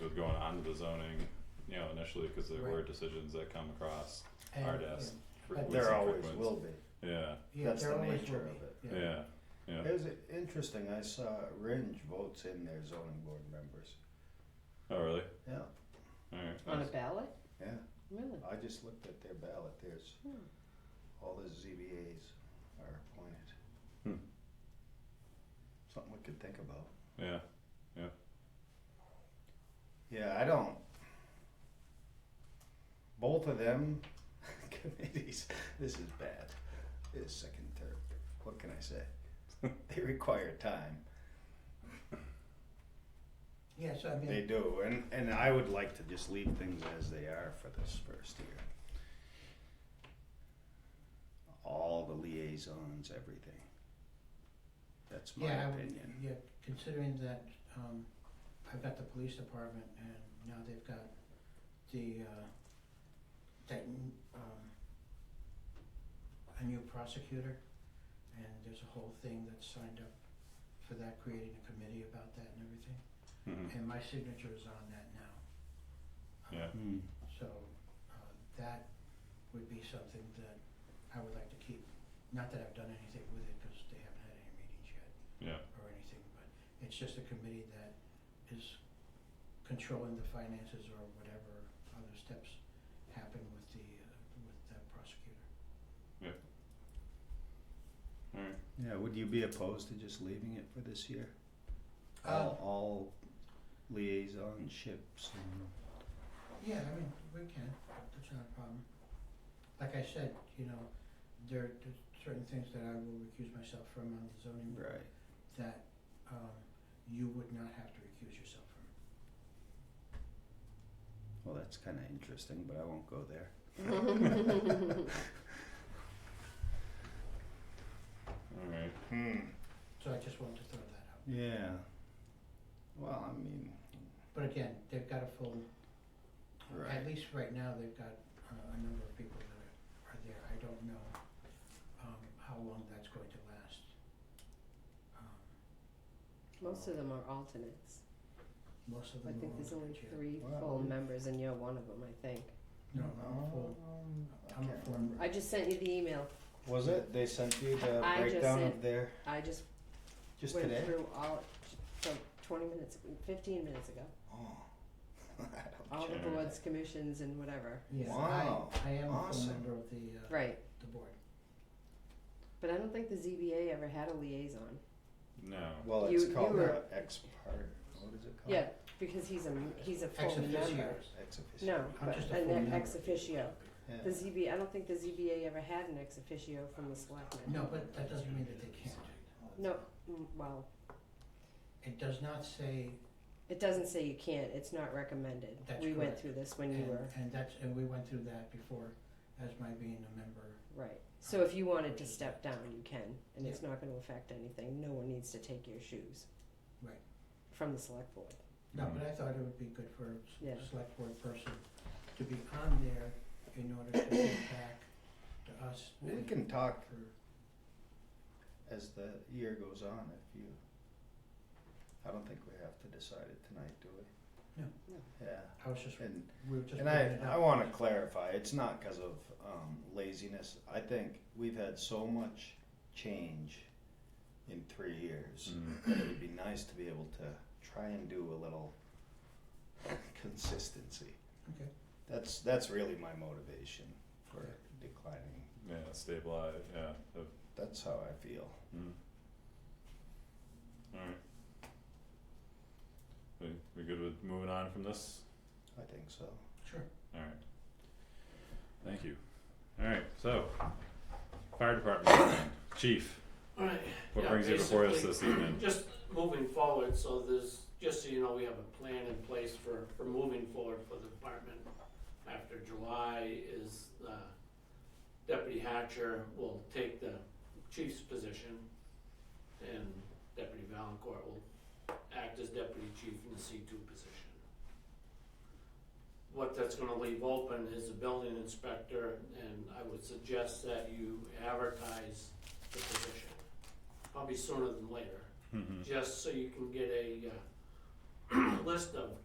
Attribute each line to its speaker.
Speaker 1: of going onto the zoning, you know, initially, cause there were
Speaker 2: Right.
Speaker 1: decisions that come across
Speaker 2: And,
Speaker 1: our desk. fre-
Speaker 2: But
Speaker 1: with
Speaker 3: There
Speaker 1: some
Speaker 3: always
Speaker 1: frequency.
Speaker 3: will be.
Speaker 1: Yeah,
Speaker 2: yeah,
Speaker 3: That's
Speaker 2: there
Speaker 3: the
Speaker 2: always
Speaker 3: nature
Speaker 2: will
Speaker 3: of
Speaker 2: be,
Speaker 3: it.
Speaker 2: yeah.
Speaker 1: yeah, yeah,
Speaker 3: It was interesting, I saw Ringe votes in their zoning board members.
Speaker 1: oh, really,
Speaker 3: Yeah,
Speaker 1: alright,
Speaker 4: On a
Speaker 1: nice.
Speaker 4: ballot?
Speaker 3: yeah,
Speaker 4: Really?
Speaker 3: I just looked at their ballot, there's,
Speaker 4: Hmm.
Speaker 3: all the ZBAs are appointed.
Speaker 1: Hmm.
Speaker 3: Something we could think about.
Speaker 1: yeah,
Speaker 3: Yeah, I don't. Both of them committees, this is bad. This second, third, what can I say? They require time.
Speaker 2: Yes, I
Speaker 3: They
Speaker 2: mean,
Speaker 3: do, and, and I would like to just leave things as they are for this first year. All the liaisons, everything. That's my
Speaker 2: yeah, I would,
Speaker 3: opinion.
Speaker 2: yeah, considering that, um, I've got the police department and now they've got the, uh, that, n- um, a new prosecutor, and there's a whole thing that's signed up for that, creating a committee about that and everything,
Speaker 1: mhm,
Speaker 2: and my signature is on that now.
Speaker 1: Yeah.
Speaker 3: Hmm.
Speaker 2: So uh, that would be something that I would like to keep. Not that I've done anything with it because they haven't had any meetings yet
Speaker 1: yeah,
Speaker 2: or anything, but it's just a committee that is controlling the finances or whatever other steps happen with the, uh, with the prosecutor.
Speaker 1: alright,
Speaker 3: Yeah, would you be opposed to just leaving it for this year?
Speaker 2: Uh,
Speaker 3: All, all liaisonships and.
Speaker 2: Yeah, I mean, we can, that's not a problem. Like I said, you know, there are certain things that I will recuse myself from on the zoning board.
Speaker 3: Right.
Speaker 2: that um you would not have to recuse yourself from.
Speaker 3: Well, that's kinda interesting, but I won't go there.
Speaker 1: alright,
Speaker 3: Hmm,
Speaker 2: So I just wanted to throw that out.
Speaker 3: yeah. Well, I mean,
Speaker 2: But again, they've got a full,
Speaker 3: Right.
Speaker 2: at least right now, they've got uh, a number of people that are are there. I don't know um how long that's going to last. Um
Speaker 4: Most of them are alternates.
Speaker 2: most of
Speaker 4: I
Speaker 2: them
Speaker 4: think
Speaker 2: are
Speaker 4: there's only
Speaker 2: volunteer.
Speaker 4: three
Speaker 3: Wow.
Speaker 4: full members and you're one of them, I think.
Speaker 2: No, I'm full.
Speaker 3: Um, I
Speaker 2: I'm a
Speaker 3: can't
Speaker 2: full-
Speaker 3: remember.
Speaker 4: I just sent you the email.
Speaker 3: Was it, they sent you the
Speaker 4: I just
Speaker 3: breakdown of
Speaker 4: sent-
Speaker 3: their,
Speaker 4: I just
Speaker 3: just
Speaker 4: went
Speaker 3: today?
Speaker 4: through all from 20 minutes, 15 minutes ago.
Speaker 3: Oh. I
Speaker 4: All
Speaker 3: don't
Speaker 4: the
Speaker 3: care.
Speaker 1: Sure.
Speaker 4: boards, commissions, and whatever.
Speaker 2: Yeah,
Speaker 3: Wow,
Speaker 2: I I am a full
Speaker 3: awesome.
Speaker 2: member of the uh
Speaker 4: Right.
Speaker 2: the board.
Speaker 4: But I don't think the ZBA ever had a liaison.
Speaker 1: no,
Speaker 3: Well,
Speaker 4: You-
Speaker 3: it's
Speaker 4: you
Speaker 3: called
Speaker 4: were-
Speaker 3: the ex part, what is it called?
Speaker 4: Yeah, because he's a he's a full
Speaker 2: Ex officio.
Speaker 4: member.
Speaker 3: Ex officio.
Speaker 4: No,
Speaker 2: I'm
Speaker 4: but
Speaker 2: just a full
Speaker 4: an
Speaker 2: member.
Speaker 4: ex officio.
Speaker 3: Yeah.
Speaker 4: The ZB, I don't think the ZBA ever had an ex officio from the selectmen.
Speaker 2: No, but that doesn't mean that they can't.
Speaker 4: No, mm, well,
Speaker 2: It does not say
Speaker 4: it doesn't say you can't, it's not recommended.
Speaker 2: That's
Speaker 4: We went
Speaker 2: correct.
Speaker 4: through this when you
Speaker 2: And,
Speaker 4: were,
Speaker 2: and that's, and we went through that before as my being a member.
Speaker 4: right. So if you wanted to step down, you can, and it's not gonna affect anything. No one needs to take your shoes.
Speaker 2: Right.
Speaker 4: From the select board.
Speaker 2: No,
Speaker 1: Mhm.
Speaker 2: but I thought it would be good for a s-
Speaker 4: Yeah.
Speaker 2: select board person to be on there in order to get back to us.
Speaker 3: We
Speaker 2: and
Speaker 3: can talk
Speaker 2: for-
Speaker 3: as the year goes on, if you, I don't think we have to decide it tonight, do we?
Speaker 2: No.
Speaker 4: No.
Speaker 3: Yeah,
Speaker 2: I was just,
Speaker 3: and,
Speaker 2: we were just.
Speaker 3: and I,
Speaker 2: bringing it
Speaker 3: I
Speaker 2: up.
Speaker 3: wanna clarify, it's not cause of, um, laziness, I think we've had so much change in three years,
Speaker 1: Mhm.
Speaker 3: that it'd be nice to be able to try and do a little consistency.
Speaker 2: Okay.
Speaker 3: That's, that's really my motivation for declining,
Speaker 1: yeah, stabilize, yeah, the
Speaker 3: that's how I feel.
Speaker 1: Mm. Alright. We, we good with moving on from this?
Speaker 3: I think so.
Speaker 2: Sure.
Speaker 1: Alright. Thank you. Alright, so, fire department, chief,
Speaker 5: Alright,
Speaker 1: what
Speaker 5: Yeah,
Speaker 1: brings you before us this evening?
Speaker 5: just moving forward, so there's, just so you know, we have a plan in place for, for moving forward for the department. After July is, uh, Deputy Hatcher will take the chief's position and Deputy Valencourt will act as deputy chief in the C two position. What that's gonna leave open is a building inspector and I would suggest that you advertise the position probably sooner than later,
Speaker 1: Mhm.
Speaker 5: just so you can get a uh, list of